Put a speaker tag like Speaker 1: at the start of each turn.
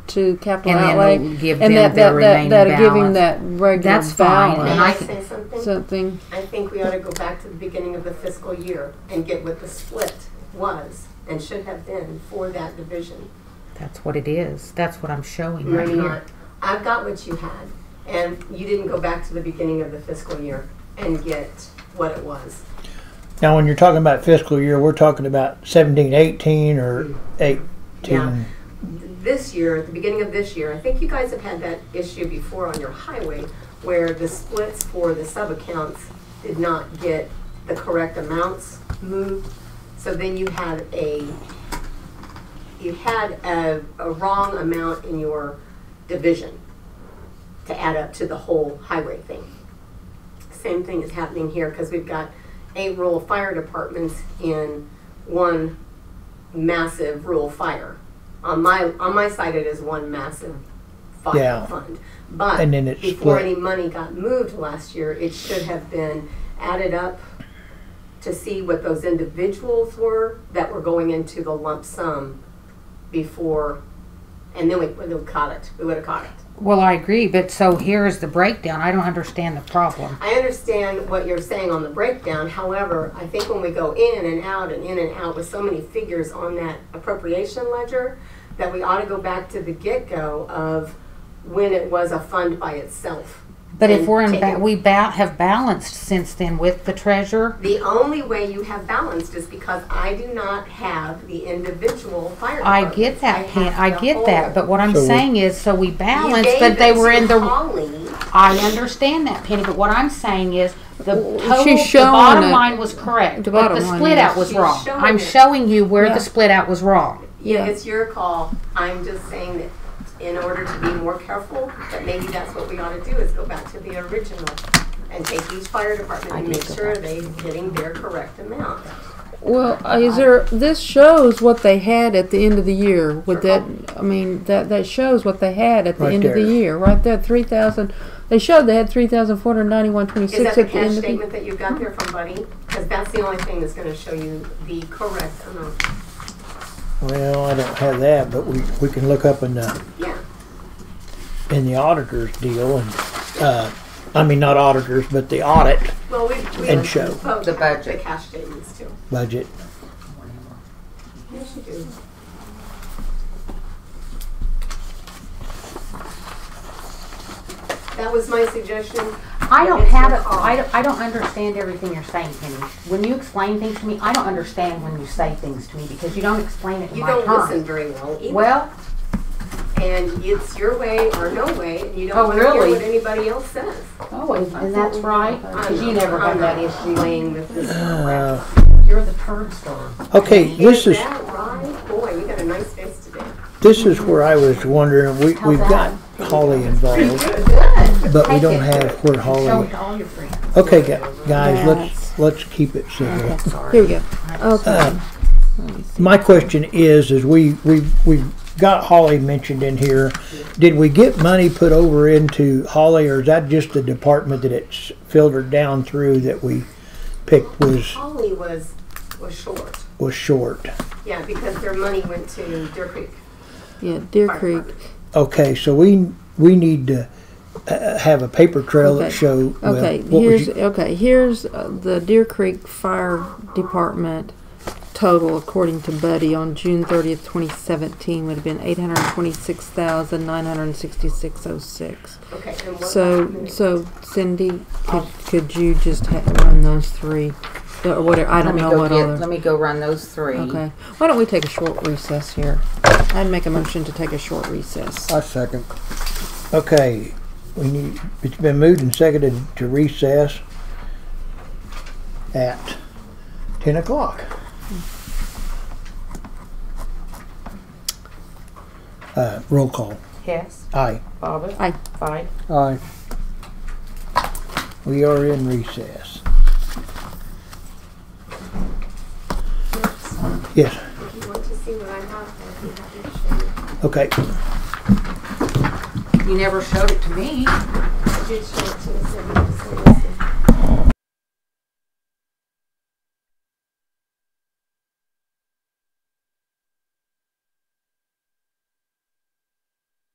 Speaker 1: to capital
Speaker 2: And then
Speaker 1: outlay,
Speaker 2: we'll give
Speaker 1: and
Speaker 2: them
Speaker 1: that
Speaker 2: their
Speaker 1: that that
Speaker 2: remaining
Speaker 1: that'll give him
Speaker 2: balance.
Speaker 1: that regular
Speaker 2: That's fine,
Speaker 1: balance.
Speaker 2: and
Speaker 3: Can
Speaker 2: I
Speaker 3: I
Speaker 2: can-
Speaker 3: say something?
Speaker 1: something.
Speaker 3: I think we ought to go back to the beginning of the fiscal year and get what the split was and should have been for that division.
Speaker 2: That's what it is. That's what I'm showing
Speaker 3: You're
Speaker 2: right
Speaker 3: not,
Speaker 2: here.
Speaker 3: I've got what you had, and you didn't go back to the beginning of the fiscal year and get what it was.
Speaker 4: Now, when you're talking about fiscal year, we're talking about 17, 18, or 18.
Speaker 3: Yeah. This year, at the beginning of this year, I think you guys have had that issue before on your highway where the splits for the sub-accounts did not get the correct amounts moved. So then you had a, you had a, a wrong amount in your division to add up to the whole highway thing. Same thing is happening here because we've got eight rural fire departments in one massive rural fire. On my on my side, it is one massive fire
Speaker 4: Yeah.
Speaker 3: fund. But
Speaker 4: And then it's
Speaker 3: before
Speaker 4: split.
Speaker 3: any money got moved last year, it should have been added up to see what those individuals were that were going into the lump sum before, and then we would have caught it. We would have caught it.
Speaker 2: Well, I agree, but so here's the breakdown. I don't understand the problem.
Speaker 3: I understand what you're saying on the breakdown, however, I think when we go in and out and in and out with so many figures on that appropriation ledger, that we ought to go back to the get-go of when it was a fund by itself.
Speaker 2: But if
Speaker 3: And
Speaker 2: we're in,
Speaker 3: take
Speaker 2: ba-
Speaker 3: it-
Speaker 2: we ba- have balanced since then with the treasurer.
Speaker 3: The only way you have balanced is because I do not have the individual fire
Speaker 2: I
Speaker 3: departments.
Speaker 2: get that, Pam.
Speaker 3: have
Speaker 2: I
Speaker 3: the
Speaker 2: get
Speaker 3: whole.
Speaker 2: that, but what I'm
Speaker 4: So we-
Speaker 2: saying is, so we
Speaker 3: You
Speaker 2: balanced,
Speaker 3: gave
Speaker 2: but they
Speaker 3: it
Speaker 2: were
Speaker 3: to
Speaker 2: in the.
Speaker 3: Holly.
Speaker 2: I understand that, Penny, but what I'm saying is, the total,
Speaker 1: she's
Speaker 2: the bottom
Speaker 1: showing it.
Speaker 2: line was correct,
Speaker 1: The
Speaker 2: but the
Speaker 1: bottom line
Speaker 2: split out
Speaker 1: is-
Speaker 2: was
Speaker 3: She's
Speaker 2: wrong.
Speaker 3: showing
Speaker 2: I'm
Speaker 3: it.
Speaker 2: showing you where
Speaker 1: Yeah.
Speaker 2: the split out was wrong.
Speaker 3: Yeah,
Speaker 1: Yeah.
Speaker 3: it's your call. I'm just saying that in order to be more careful, that maybe that's what we ought to do is go back to the original and take each fire department and make sure they're getting their correct amount.
Speaker 1: Well, uh, is there? This shows what they had at the end of the year. Would that? I mean, that that shows what they had at the
Speaker 4: Right
Speaker 1: end of
Speaker 4: there.
Speaker 1: the year, right there. Three thousand. They showed they had three thousand four hundred ninety-one
Speaker 3: Is that
Speaker 1: twenty-six
Speaker 3: the
Speaker 1: at the
Speaker 3: cash
Speaker 1: end of the. year.
Speaker 3: statement that you got there from Buddy? Because that's the only thing that's gonna show you the correct amount.
Speaker 4: Well, I don't have that, but we, we can look up in the,
Speaker 3: Yeah,
Speaker 4: in the auditor's deal and, uh, I mean, not auditors, but the audit
Speaker 3: well, we, we.
Speaker 4: And show.
Speaker 3: both
Speaker 5: The
Speaker 3: have The
Speaker 5: budget.
Speaker 3: cash statements too.
Speaker 4: budget.
Speaker 3: Yes, you do. That was my suggestion.
Speaker 2: I don't
Speaker 3: It's
Speaker 2: have
Speaker 3: your
Speaker 2: it,
Speaker 3: call.
Speaker 2: I don't, I don't understand everything you're saying, Penny. When you explain things to me, I don't understand when you say things to me, because you don't explain it in
Speaker 3: You
Speaker 2: my
Speaker 3: don't listen
Speaker 2: terms.
Speaker 3: very well either.
Speaker 2: Well,
Speaker 3: and it's your way or no way, and you don't
Speaker 2: Oh,
Speaker 3: want to
Speaker 2: really?
Speaker 3: hear what anybody else says.
Speaker 2: oh, and and that's right, because you
Speaker 3: I'm-
Speaker 2: never have
Speaker 3: I'm
Speaker 2: that
Speaker 3: not
Speaker 2: issue.
Speaker 3: Playing with this.
Speaker 4: Uh,
Speaker 2: You're the turd star.
Speaker 4: okay, this is,
Speaker 3: that right? Boy, you got a nice face today.
Speaker 4: this is where I was wondering, we, we've got Holly involved, but we don't have where
Speaker 2: Show
Speaker 4: Holly.
Speaker 2: it to all your friends.
Speaker 4: Okay, gu- guys, let's, let's keep it simple.
Speaker 1: Here we go.
Speaker 2: Uh,
Speaker 1: Okay.
Speaker 4: My question is, is we, we, we've got Holly mentioned in here. Did we get money put over into Holly or is that just the department that it's filtered down through that we picked was,
Speaker 3: Holly was, was short,
Speaker 4: was short?
Speaker 3: yeah, because their money went to Deer Creek.
Speaker 1: Yeah, Deer
Speaker 3: Fire
Speaker 1: Creek.
Speaker 3: Department.
Speaker 4: Okay, so we, we need to uh, have a paper trail that
Speaker 1: Okay.
Speaker 4: show. well,
Speaker 1: Okay,
Speaker 4: what was
Speaker 1: here's
Speaker 4: you-
Speaker 1: okay. Here's uh, the Deer Creek Fire Department total, according to Buddy, on June 30th, 2017, would have been 826,966.06.
Speaker 3: Okay, and what?
Speaker 1: So, so Cindy, could, could you just ha- run those three, or whatever? I
Speaker 5: Let
Speaker 1: don't
Speaker 5: me
Speaker 1: know
Speaker 5: go
Speaker 1: what
Speaker 5: get,
Speaker 1: other.
Speaker 5: let me go run those three.
Speaker 1: Okay, why don't we take a short recess here? I'd make a motion to take a short recess.
Speaker 5: Uh,
Speaker 6: I second.
Speaker 4: Okay, we need, it's been moved and seconded to recess at ten o'clock. Uh, roll call.
Speaker 5: Hess,
Speaker 4: Aye,
Speaker 5: Bobbit.
Speaker 1: Aye.
Speaker 5: Fight.
Speaker 6: Aye.
Speaker 4: we are in recess. Yes,
Speaker 3: If you want to see what I have, I'd be happy to show you.
Speaker 4: okay,
Speaker 2: You never showed it to me.
Speaker 3: I did show it to the city,